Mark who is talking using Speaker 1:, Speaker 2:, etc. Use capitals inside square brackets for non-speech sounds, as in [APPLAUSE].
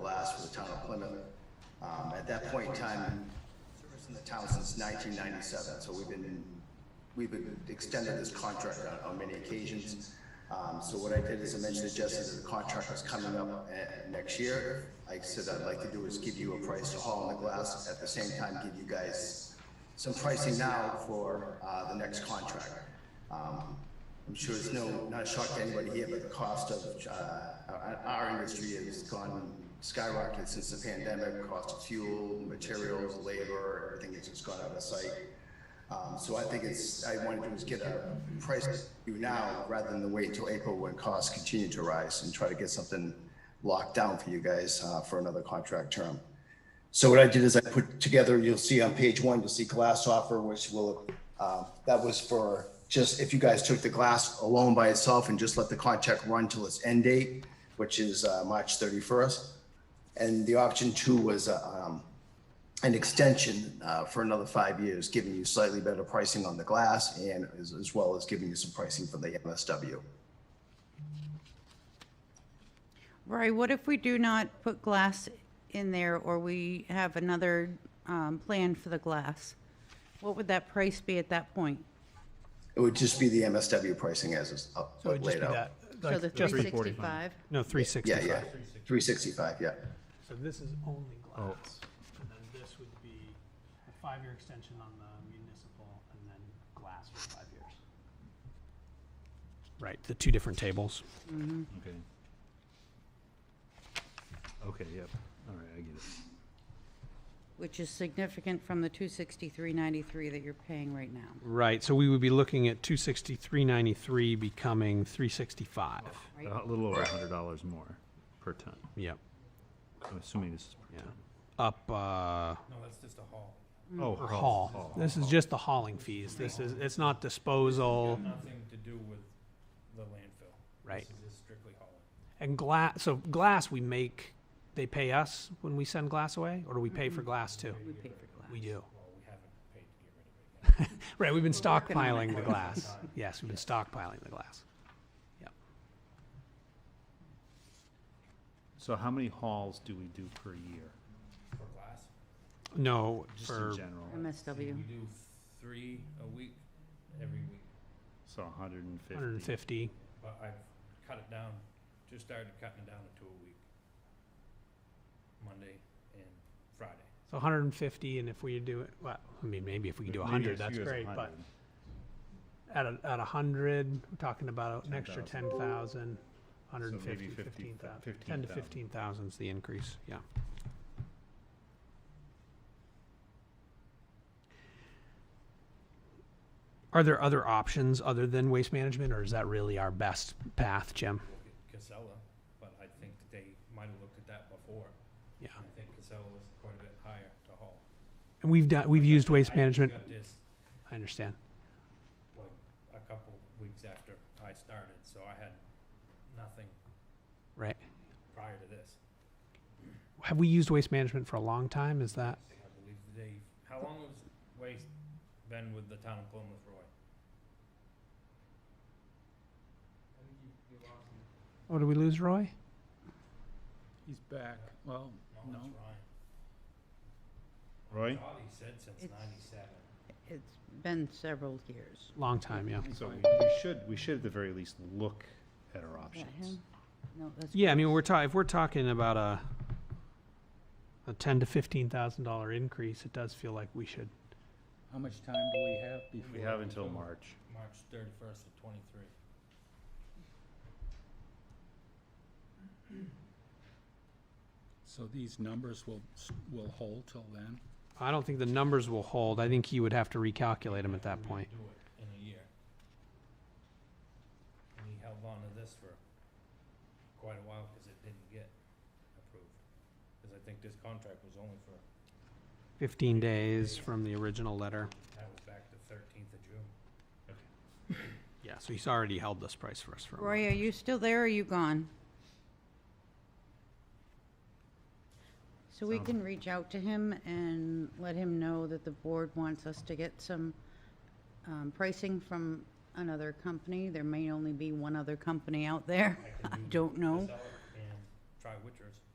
Speaker 1: Glass for the town of Plymouth. Um, at that point in time, service in the town since nineteen ninety-seven, so we've been, we've been extended this contract on, on many occasions. Um, so what I did is I mentioned to Jesse that the contract was coming up, uh, next year. I said I'd like to do is give you a price to haul in the glass, at the same time give you guys some pricing now for, uh, the next contract. Um, I'm sure it's no, not a shock to anybody here, but the cost of, uh, our, our industry has gone skyrocketed since the pandemic, cost of fuel, materials, labor, everything has just gone out of sight. Um, so I think it's, I wanted to do is get a price you now rather than wait until April when costs continue to rise and try to get something locked down for you guys, uh, for another contract term. So what I did is I put together, you'll see on page one, you'll see glass offer, which will, uh, that was for just if you guys took the glass alone by itself and just let the contract run till its end date, which is uh, March 31st. And the option two was uh, um, an extension uh, for another five years, giving you slightly better pricing on the glass and as as well as giving you some pricing for the MSW.
Speaker 2: Rory, what if we do not put glass in there or we have another um, plan for the glass? What would that price be at that point?
Speaker 1: It would just be the MSW pricing as is up-
Speaker 3: So it'd just
Speaker 1: laid
Speaker 3: be
Speaker 1: out.
Speaker 3: that.
Speaker 2: So
Speaker 3: like
Speaker 2: the
Speaker 3: just-
Speaker 2: 365?
Speaker 3: No,
Speaker 1: Yeah, yeah,
Speaker 3: 365.
Speaker 1: 365, yeah.
Speaker 3: So this is only glass. And then this would be a five-year extension on the municipal and then glass for five years. Right, the two different tables.
Speaker 4: Okay. Okay, yep, all right, I get it.
Speaker 2: Which is significant from the 263.93 that you're paying right now.
Speaker 3: Right, so we would be looking at 263.93 becoming 365.
Speaker 2: Right.
Speaker 4: A little over a hundred dollars more per ton.
Speaker 3: Yep,
Speaker 4: I'm assuming this is per
Speaker 3: yeah. Up, uh,
Speaker 5: No, that's just a hall.
Speaker 4: ton. Oh,
Speaker 3: or haul. This is just the hauling fees. This is, it's not disposal,
Speaker 5: Nothing to do with the landfill.
Speaker 3: right?
Speaker 5: This is just strictly hauling.
Speaker 3: And glass, so glass we make, they pay us when we send glass away, or do we pay for glass too?
Speaker 2: We pay for glass.
Speaker 3: We do.
Speaker 5: Well, we haven't paid to get rid of it.
Speaker 3: [LAUGHS] Right, we've been
Speaker 2: working on
Speaker 3: stockpiling the glass. Yes, we've been stockpiling the glass. Yep.
Speaker 4: So how many hauls do we do per year,
Speaker 5: For glass,
Speaker 3: No,
Speaker 4: just
Speaker 3: for,
Speaker 4: in general?
Speaker 5: we
Speaker 2: MSW.
Speaker 5: do three a week, every week.
Speaker 4: So a hundred and fifty.
Speaker 3: hundred and fifty.
Speaker 5: But I've cut it down, just started cutting it down to two a week. Monday and Friday.
Speaker 3: So hundred and fifty, and if we do it, well, I mean, maybe if we can do
Speaker 4: Maybe
Speaker 3: hundred,
Speaker 4: as
Speaker 3: that's
Speaker 4: few as
Speaker 3: great, but
Speaker 4: 100.
Speaker 3: at a, at a hundred, we're talking about an extra ten thousand, hundred and
Speaker 4: So maybe
Speaker 3: fifty,
Speaker 4: 15
Speaker 3: fifteen thousand.
Speaker 4: fifteen
Speaker 3: Ten to
Speaker 4: thousand.
Speaker 3: fifteen thousand's the increase, yeah. Are there other options other than waste management, or is that really our best path, Jim?
Speaker 5: Look at Casella, but I think that they might have looked at that before.
Speaker 3: Yeah,
Speaker 5: I think Casella was quite a bit higher to haul.
Speaker 3: and we've done, we've used waste
Speaker 5: I
Speaker 3: management,
Speaker 5: got this
Speaker 3: I understand.
Speaker 5: like a couple weeks after I started, so I had nothing
Speaker 3: Right.
Speaker 5: prior to this.
Speaker 3: Have we used waste management for a long time? Is that
Speaker 5: I believe they, how long has Waste been with the town of Plymouth, Roy?
Speaker 3: oh, did we lose Roy?
Speaker 6: He's back. Well,
Speaker 5: No,
Speaker 6: No.
Speaker 5: it's Ryan.
Speaker 4: Roy?
Speaker 5: Thought he said since
Speaker 2: It's-
Speaker 5: ninety-seven.
Speaker 2: It's been several years.
Speaker 3: Long time, yeah.
Speaker 4: So we we should, we should at the very least look at our
Speaker 2: Is that
Speaker 4: options.
Speaker 2: him? No, that's.
Speaker 3: Yeah, I mean, we're talking if we're talking about a a ten to fifteen thousand dollar increase, it does feel like we should.
Speaker 6: how much time do we have before?
Speaker 4: We have until March.
Speaker 5: March thirty-first of twenty-three.
Speaker 6: So these numbers will, s- will hold till then?
Speaker 3: I don't think the numbers will hold. I think he would have to recalculate them at that point.
Speaker 5: Do it in a year. And he held on to this for quite a while, cause it didn't get approved. Cause I think this contract was only for,
Speaker 3: Fifteen days from the original letter.
Speaker 5: that was back to thirteenth of June.
Speaker 3: Yeah, so he's already held this price for us for a month.
Speaker 2: Roy, are you still there or are you gone? So we can reach out to him and let him know that the board wants us to get some um, pricing from another company. There may only be one other company out there. I don't know.
Speaker 5: Casella and try Witchers.